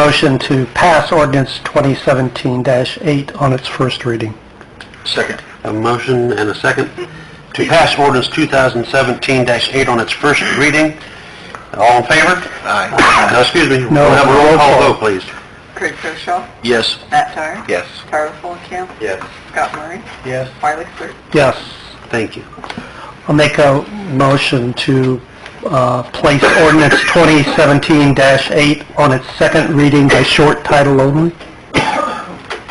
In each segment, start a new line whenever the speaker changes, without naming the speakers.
Motion to pass ordinance 2017-8 on its first reading.
Second. A motion and a second to pass ordinance 2017-8 on its first reading. All in favor? Aye. No, excuse me.
No.
We'll have a roll call vote, please.
Craig Koshaw,
Yes.
Matt Dyer.
Yes.
Tyler Fulenkamp.
Yes.
Scott Murray.
Yes.
Wiley Sir.
Yes.
Thank you.
I'll make a motion to uh, place ordinance 2017-8 on its second reading by short title only.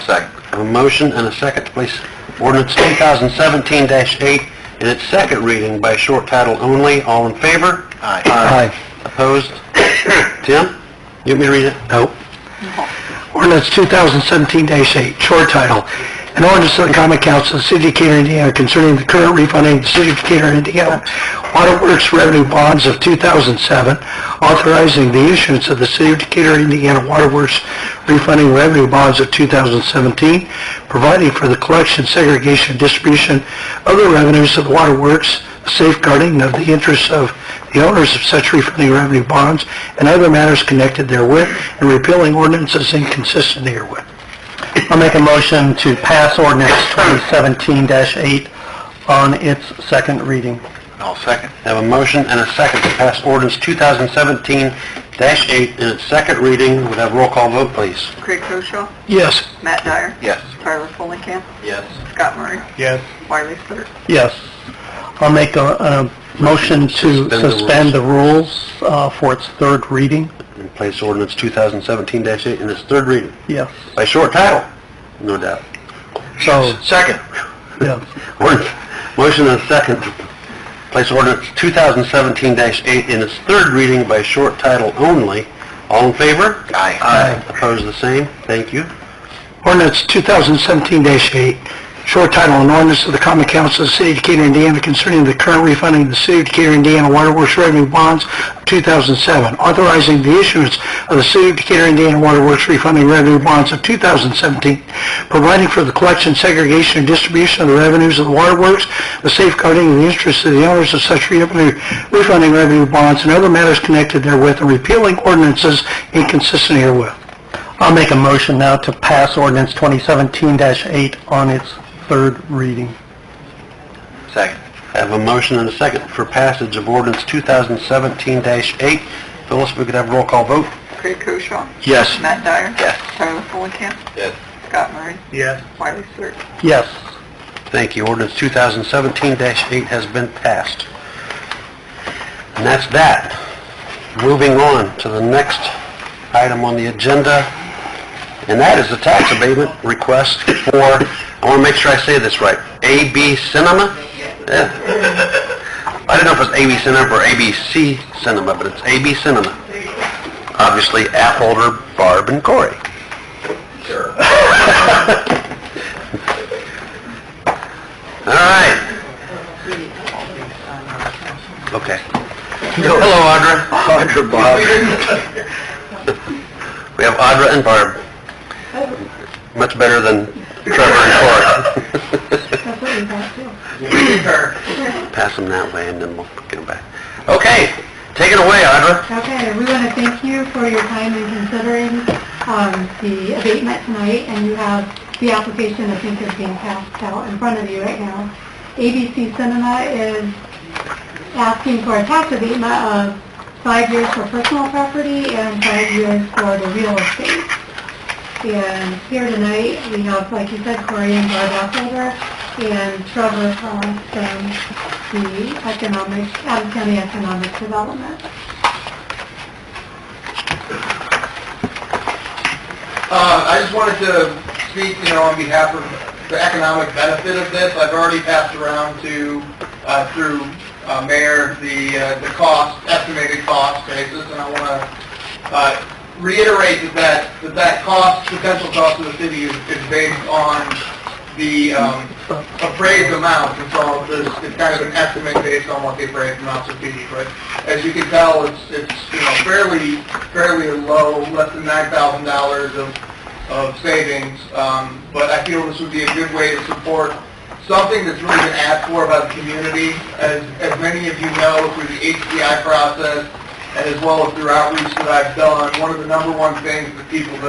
Second. A motion and a second to place ordinance 2017-8 in its second reading by short title only. All in favor? Aye.
Aye.
Opposed? Tim? You want me to read it? No.
Ordinance 2017-8, short title, an ordinance of the common council of the city of Decatur, Indiana concerning the current refunding of the city of Decatur, Indiana Waterworks revenue bonds of 2007, authorizing the issuance of the city of Decatur, Indiana Waterworks refunding revenue bonds of 2017, providing for the collection, segregation, and distribution of the revenues of the waterworks, safeguarding of the interests of the owners of such refunding revenue bonds and other matters connected therewith, and repealing ordinances inconsistent therewith. I'll make a motion to pass ordinance 2017-8 on its second reading.
I'll second. Have a motion and a second to pass ordinance 2017-8 in its second reading. Would have roll call vote, please.
Craig Koshaw,
Yes.
Matt Dyer.
Yes.
Tyler Fulenkamp.
Yes.
Scott Murray.
Yes.
Wiley Sir.
Yes. I'll make a, a motion to
Suspend the rules.
suspend the rules uh, for its third reading.
And place ordinance 2017-8 in its third reading
Yes.
by short title, no doubt.
So,
Second.
yes.
Ordinance, motion and a second to place ordinance 2017-8 in its third reading by short title only. All in favor? Aye. Aye. Opposed, the same. Thank you.
Ordinance 2017-8, short title, an ordinance of the common council of the city of Decatur, Indiana concerning the current refunding of the city of Decatur, Indiana Waterworks revenue bonds of 2007, authorizing the issuance of the city of Decatur, Indiana Waterworks refunding revenue bonds of 2017, providing for the collection, segregation, and distribution of the revenues of the waterworks, the safeguarding of the interests of the owners of such revenue- refunding revenue bonds and other matters connected therewith, and repealing ordinances inconsistent herewith. I'll make a motion now to pass ordinance 2017-8 on its third reading.
Second. I have a motion and a second for passage of ordinance 2017-8. Phyllis, we could have a roll call vote?
Craig Koshaw,
Yes.
Matt Dyer.
Yes.
Tyler Fulenkamp.
Yes.
Scott Murray.
Yes.
Wiley Sir.
Yes.
Thank you. Ordinance 2017-8 has been passed. And that's that. Moving on to the next item on the agenda, and that is the tax abatement request for, I want to make sure I say this right, AB Cinema? Yeah. I didn't know if it was AB Cinema or ABC Cinema, but it's AB Cinema. Obviously, Apholder, Barb, and Corey. All right. Okay. Hello, Audra. Audra, Bob. We have Audra and Barb. Much better than Trevor and Cora. Pass them that way and then we'll get them back. Okay, take it away, Audra.
Okay, we want to thank you for your time in considering um, the abatement tonight, and you have the application, I think, is being passed out in front of you right now. ABC Cinema is asking for a tax abatement of five years for personal property and five years for the real estate. And here tonight, we have, like you said, Corey and Barb Apfelder and Trevor Collins from the Economic, Adams County Economic Development.
Uh, I just wanted to speak, you know, on behalf of the economic benefit of this. I've already passed around to, uh, through uh, Mayor, the, uh, the cost, estimated cost basis, and I want to uh, reiterate that that, that that cost, potential cost of the city is is based on the um, appraised amounts, and so there's, it's kind of an estimate based on what the appraised amounts would be, but as you can tell, it's, it's, you know, fairly, fairly low, less than nine thousand dollars of, of savings, um, but I feel this would be a good way to support something that's really been asked for by the community. As, as many of you know, through the HDI process, and as well as through outreach that I've done, one of the number one things that people that